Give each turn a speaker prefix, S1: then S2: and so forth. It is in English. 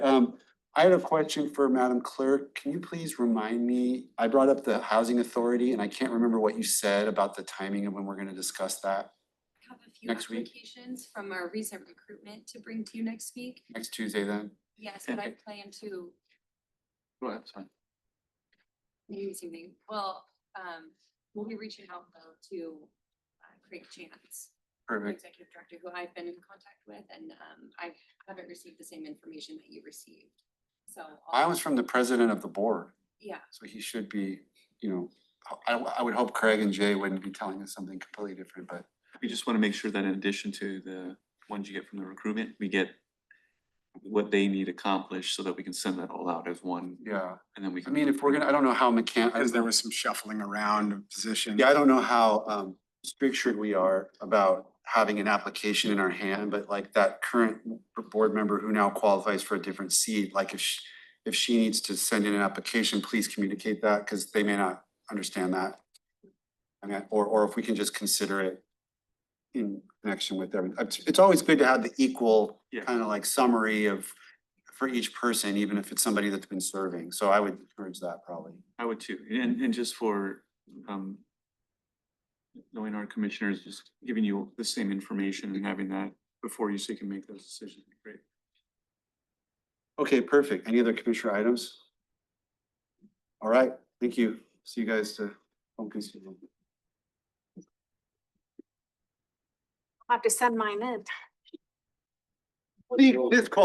S1: Um, I had a question for Madam Clerk. Can you please remind me, I brought up the Housing Authority and I can't remember what you said about the timing of when we're gonna discuss that
S2: have a few
S1: Next week.
S2: applications from our recent recruitment to bring to you next week.
S1: next Tuesday then.
S2: Yes, but I plan to
S3: Go ahead, sorry.
S2: do something. Well, um, we'll be reaching out though to uh, Craig Chance, our
S1: Perfect.
S2: executive director, who I've been in contact with, and um, I haven't received the same information that you received. So.
S1: I
S2: I'll-
S1: was from the president of the board,
S2: Yeah,
S1: so he should be, you know, I, I would hope Craig and Jay wouldn't be telling us something completely different, but
S3: We just want to make sure that in addition to the ones you get from the recruitment, we get what they need accomplished so that we can send that all out as one
S1: yeah.
S3: and then we
S1: I
S3: can.
S1: mean, if we're gonna, I don't know how mechan, I
S4: Because
S1: don't
S4: there
S1: know-
S4: was some shuffling around of positions.
S1: yeah, I don't know how, um, structured we are about having an application in our hand, but like that current board member who now qualifies for a different seat, like if she, if she needs to send in an application, please communicate that, because they may not understand that. I mean, or, or if we can just consider it in connection with everything. It's, it's always good to have the equal
S3: Yeah.
S1: kind of like summary of, for each person, even if it's somebody that's been serving. So I would encourage that probably.
S3: I would too. And, and just for, um, knowing our commissioners, just giving you the same information and having that before you so you can make those decisions. would be Great.
S1: Okay, perfect. Any other commissioner items? All right, thank you. See you guys to home concealment.
S5: I'll have to send mine in.
S1: This call